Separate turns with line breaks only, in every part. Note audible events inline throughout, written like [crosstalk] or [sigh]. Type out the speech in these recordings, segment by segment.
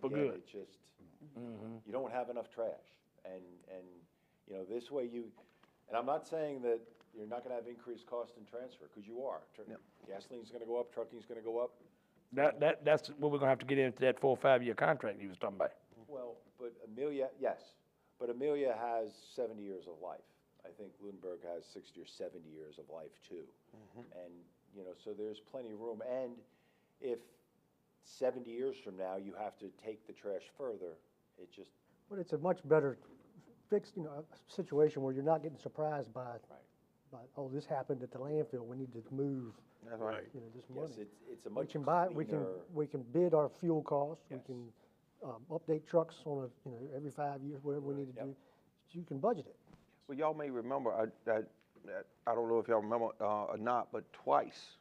But
Again,
good. Mm-hmm.
It's just, you don't have enough trash. And, and, you know, this way you, and I'm not saying that you're not gonna have increased cost in transfer, because you are. Tr- Gasoline's gonna go up, trucking's gonna go up.
Mm-hmm. That, that, that's what we're gonna have to get into that four, or five-year contract you was talking about.
Well, but Amelia, yes, but Amelia has seventy years of life. I think Lunenburg has sixty or seventy years of life too.
Mm-hmm.
And, you know, so there's plenty of room. And if seventy years from now, you have to take the trash further, it just,
But it's a much better fixed, you know, situation where you're not getting surprised by, by, oh, this happened at the landfill, we need to move,
That's right.
you know, this
yes,
money.
it's, it's a
We
much
can buy, we can,
cleaner.
we can bid our fuel costs, we
Yes.
can, um, update trucks on a, you know, every five years, whatever we need to
Yep.
do. You can budget it.
Well, y'all may remember, I, that, that- I don't know if y'all remember uh, or not, but twice,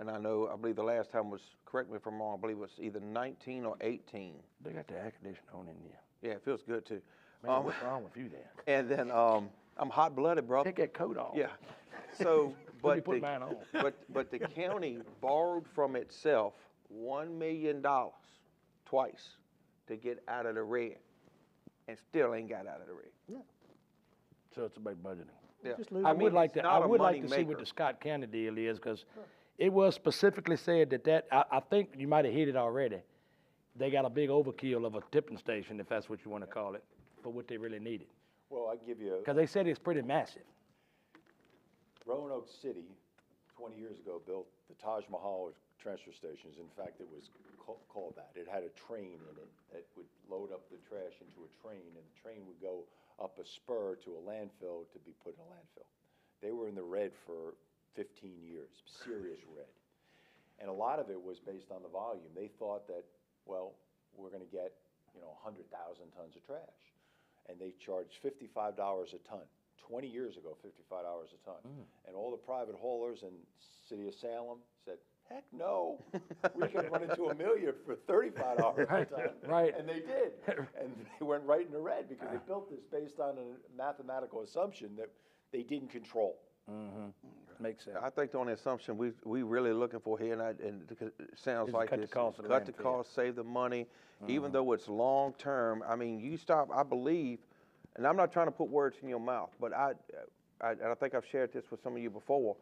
and I know, I believe the last time was, correct me if I'm wrong, I believe it was either 19 or 18.
They got the air conditioning on in there.
Yeah, it feels good too.
Man,
Um,
what's wrong with you there?
[laughs] and then um, I'm hot blooded, brother.
Take that coat off.
Yeah.
[laughs]
So, but
put
the,
mine on.
[laughs] but but the county borrowed from itself one million dollars twice to get out of the red, and still ain't got out of the red.
So it's about budgeting.
Yeah.
Just lose
I
I
would like
it's
to,
not
I
a
would like to see
moneymaker.
what the Scott County deal is, because it was specifically said that that, I, I think you might have hit it already. They got a big overkill of a tipping station, if that's what you wanna call it, for what they really needed.
Well, I give you,
Because they said it's pretty massive.
Roanoke City, 20 years ago, built the Taj Mahal of transfer stations. In fact, it was ca- called that. It had a train in it that would load up the trash into a train, and the train would go up a spur to a landfill to be put in a landfill. They were in the red for 15 years, serious red. And a lot of it was based on the volume. They thought that, well, we're gonna get, you know, hundred thousand tons of trash. And they charged fifty-five dollars a ton, twenty years ago, fifty-five dollars a ton.
Mm.
And all the private haulers in city of Salem said, heck no, we can run into a million for thirty-five dollars a
[laughs] Right,
ton.
right. Ah.
And they did.
[laughs]
And they went right in the red because they built this based on a mathematical assumption that they didn't control.
Makes sense.
I think the only assumption we, we really looking for here, and, I, and it sounds
Is
like
cut the
this,
cost of the
cut the
landfill.
cost, save the money, even though it's long term. I mean, you stop. I believe, and I'm not trying to put words in your mouth, but I, I and I think I've shared this with some of you before.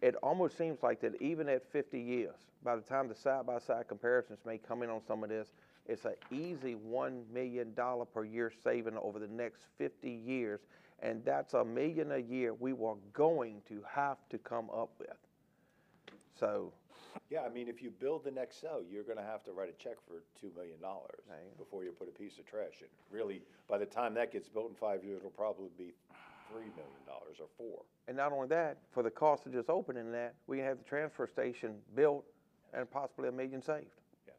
It almost seems like that even at 50 years, by the time the side by side comparisons may come in on some of this, it's an easy one million dollar per year saving over the next 50 years, and that's a million a year we were going to have to come up with. So,
Yeah, I mean, if you build the next cell, you're gonna have to write a check for two million dollars before you put a piece of trash in. Really, by the time that gets built in five years, it'll probably be three million dollars or four.
And not only that, for the cost of just opening that, we have the transfer station built and possibly a million saved.
Yes.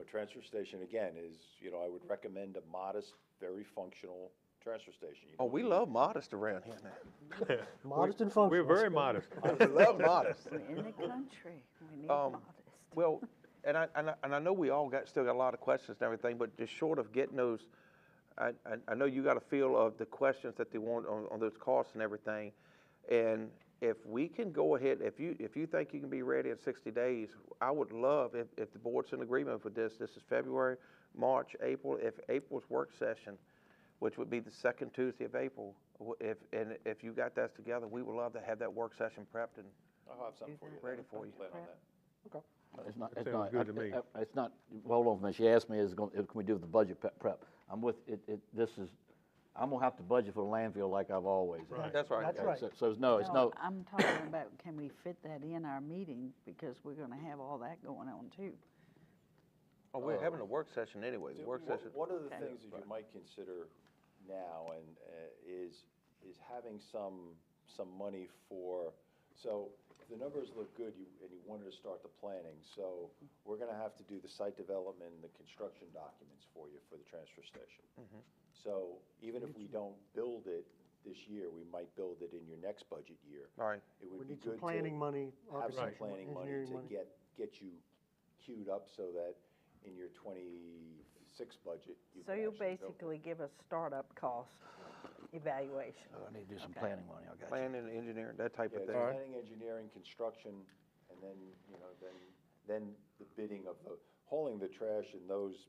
A transfer station, again, is, you know, I would recommend a modest, very functional transfer station. You
Oh,
don't
we
need-
love modest around here now.
Modest and functional.
We're very modest.
[laughs] We love [laughs] modest.
We're in the country. We need
Um,
modest.
Well, and I, and I, and I know we all got, still got a lot of questions and everything, but just short of getting those, I, I, I know you got a feel of the questions that they want on, on those costs and everything. And if we can go ahead, if you, if you think you can be ready in sixty days, I would love, if, if the board's in agreement with this, this is February, March, April, if April's work session, which would be the second Tuesday of April, w- if, and if you got that together, we would love to have that work session prepped and
I'll have something for you.
ready for you.
Plan on that.
It's not,
That
it's
sounds
not.
good
I-
to me.
I- It's not, hold on, for a minute. she asked me, is, it gonna- can we do the budget pe- prep? I'm with, it, it, this is, I'm gonna have to budget for the landfill like I've always. done.
That's right.
That's
Okay,
right.
so- So, it's no, it's
No,
no,
I'm talking about, can we fit that in our meeting, because we're gonna have all that going on too.
Oh, we're having a work session anyway. The
Uh, Do-
work
wha-
session.
One of the things that you might consider now and, uh, is, is having some, some money for, so if the numbers look good, you, and you wanted to start the planning, so we're gonna have to do the site development and the construction documents for you for the transfer station.
Mm-hmm.
So even if we don't build it this year, we might build it in your next budget year.
All right.
It
We
would be
need some
good to
planning money,
have some
architecture,
planning money
engineering
to
money.
get, get you queued up so that in your twenty-six budget, you
So
can
you'll
actually build.
basically give us startup cost evaluation.
I need to do some planning money, I got you.
Planning, engineering, that type
Yeah,
of
it's
thing.
planning, engineering, construction, and then, you know, then, then the bidding of the hauling the trash in those